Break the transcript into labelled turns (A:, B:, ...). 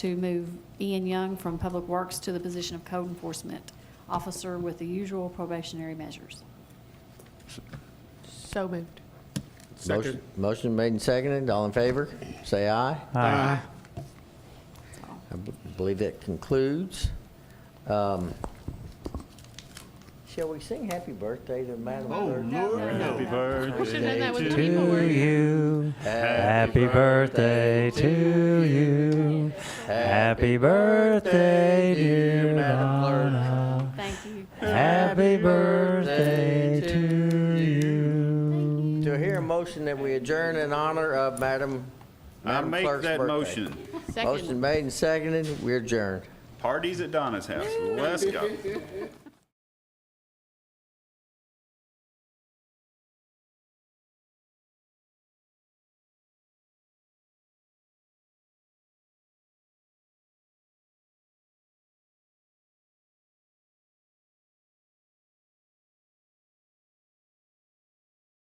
A: to move Ian Young from Public Works to the position of Code Enforcement Officer with the usual probationary measures.
B: So moved.
C: Second.
D: Motion- Motion made and seconded, all in favor, say aye.
C: Aye.
A: That's all.
D: I b- believe that concludes. Um, Shall we sing happy birthday to Madam
C: Oh,
D: Clerk?
C: Happy
B: should've done that
C: birthday
B: with
C: to
B: the people,
C: you.
B: weren't
E: you. Happy birthday to you. Happy birthday, dear Donna.
A: Thank you.
E: Happy birthday to you.
D: Do I hear a motion that we adjourn in honor of Madam
C: I
D: Madam
C: make
D: Clerk's
C: that
D: birthday?
C: motion.
B: Second.
D: Motion made and seconded, we adjourn.
C: Parties at Donna's house. Let's go.